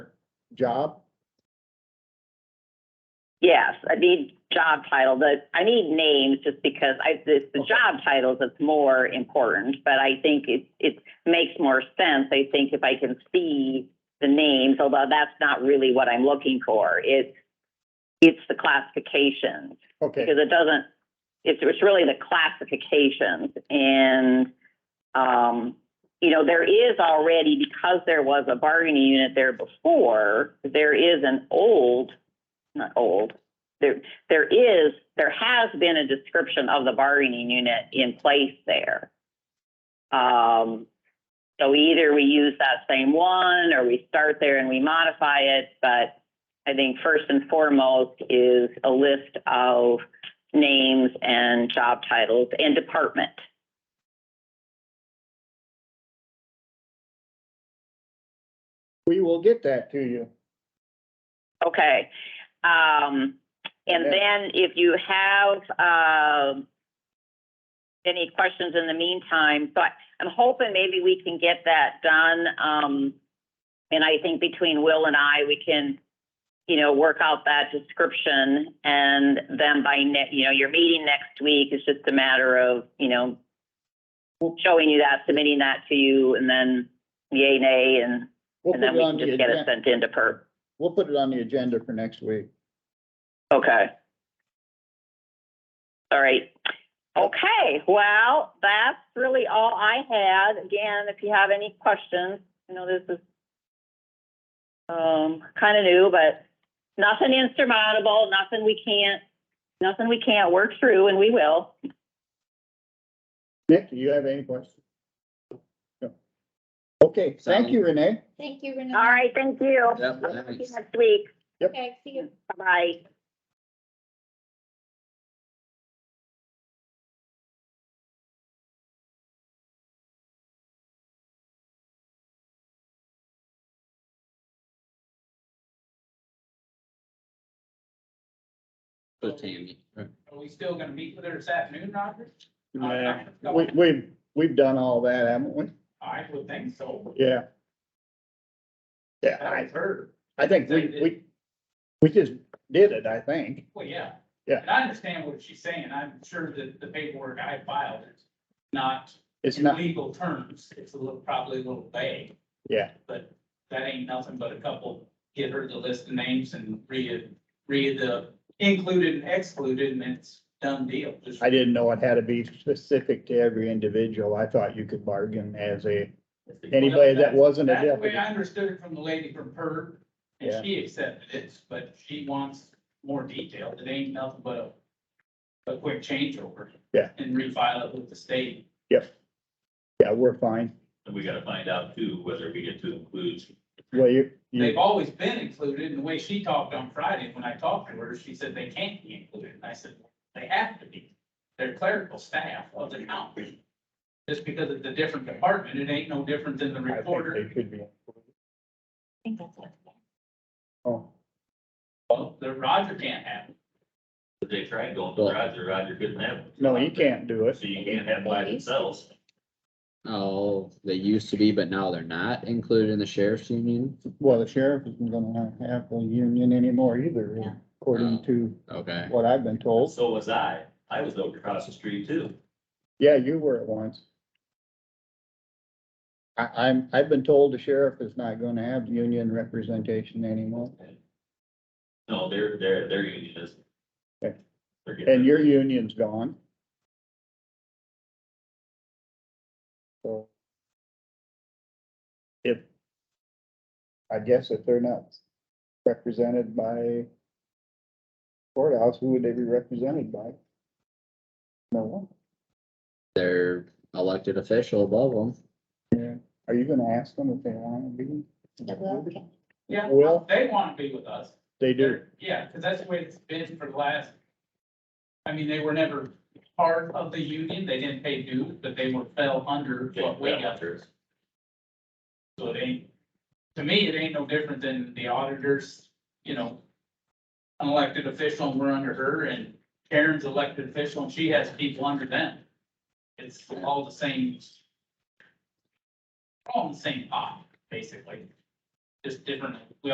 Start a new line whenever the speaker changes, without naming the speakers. job?
Yes, I need job title, but I need names just because I, the, the job titles, it's more important. But I think it, it makes more sense, I think, if I can see the names, although that's not really what I'm looking for. It's, it's the classifications.
Okay,
because it doesn't, it's, it's really the classifications and, um, you know, there is already, because there was a bargaining unit there before, there is an old, not old, there, there is, there has been a description of the bargaining unit in place there. Um, so either we use that same one or we start there and we modify it, but I think first and foremost is a list of names and job titles and department.
we will get that to you.
Okay. Um, and
Okay.
then if you have, um, any questions in the meantime, but I'm hoping maybe we can get that done. Um, and I think between Will and I, we can, you know, work out that description and then by ne- you know, your meeting next week is just a matter of, you know, showing you that, submitting that to you and then yay, nay, and,
We'll
and
put
then
it
we
on
can
the
just get it
agenda,
sent into perp.
we'll put it on the agenda for next week.
Okay. All right. Okay, well, that's really all I had. Again, if you have any questions, I know this is um, kind of new, but nothing insurmountable, nothing we can't, nothing we can't work through, and we will.
Nick, do you have any questions? No. Okay, thank you, Renee.
Thank you, Renee.
All right, thank you.
Yeah,
I'll see you
thanks.
Next week.
Okay, see you.
Bye-bye.
For Tammy.
Are we still gonna meet with her this afternoon, Roger?
Yeah, We, we've, we've done all that, haven't we?
I would think so.
Yeah. Yeah, I,
I've heard.
I think we, we, we just did it, I think.
Well, yeah.
Yeah.
And I understand what she's saying. I'm sure that the paperwork I filed is not
It's
in
not,
legal terms. It's a little, probably a little vague,
yeah,
but that ain't nothing but a couple. Get her the list of names and read, read the included and excluded and it's done deal. Just-
I didn't know it had to be specific to every individual. I thought you could bargain as a, anybody that wasn't a
That's the way
deputy.
I understood it from the lady from PERB,
Yeah.
and she accepted it, but she wants more detail. It ain't nothing but a, a quick changeover.
Yeah.
And refile it with the state.
Yeah, we're fine.
And we gotta find out too, whether we get to include,
Well, you,
They've
you,
always been included, and the way she talked on Friday, when I talked to her, she said they can't be included, and I said, they have to be. They're clerical staff of the county. Just because it's a different department, it ain't no different than the
I think
recorder.
they could be. Oh,
Well, the Roger can't have it.
but they tried going to Roger, Roger couldn't have. it.
no, you can't do it.
So you can't have by themselves.
Oh, they used to be, but now they're not included in the sheriff's union?
Well, the sheriff isn't gonna have a union anymore either,
Yeah.
according to
Okay,
what I've been told.
So was I. I was over across the street too.
Yeah, you were at once. I, I'm, I've been told the sheriff is not gonna have union representation anymore,
No, they're, they're, they're union is.
Okay.
They're getting-
and your union's gone. So. If, I guess if they're not represented by courthouse, who would they be represented by? No one.
they're elected official above them.
Yeah, are you gonna ask them if they wanna be?
Okay.
Yeah,
Well-
they wanna be with us.
They do,
They're- Yeah, because that's the way it's been for the last, I mean, they were never part of the union, they didn't pay dues, but they were fell under
getting
what we got.
vouchers.
So it ain't, to me, it ain't no different than the auditors, you know, an elected official, and we're under her, and Karen's elected official, and she has people under them. It's all the same, all in the same pot, basically, just different, we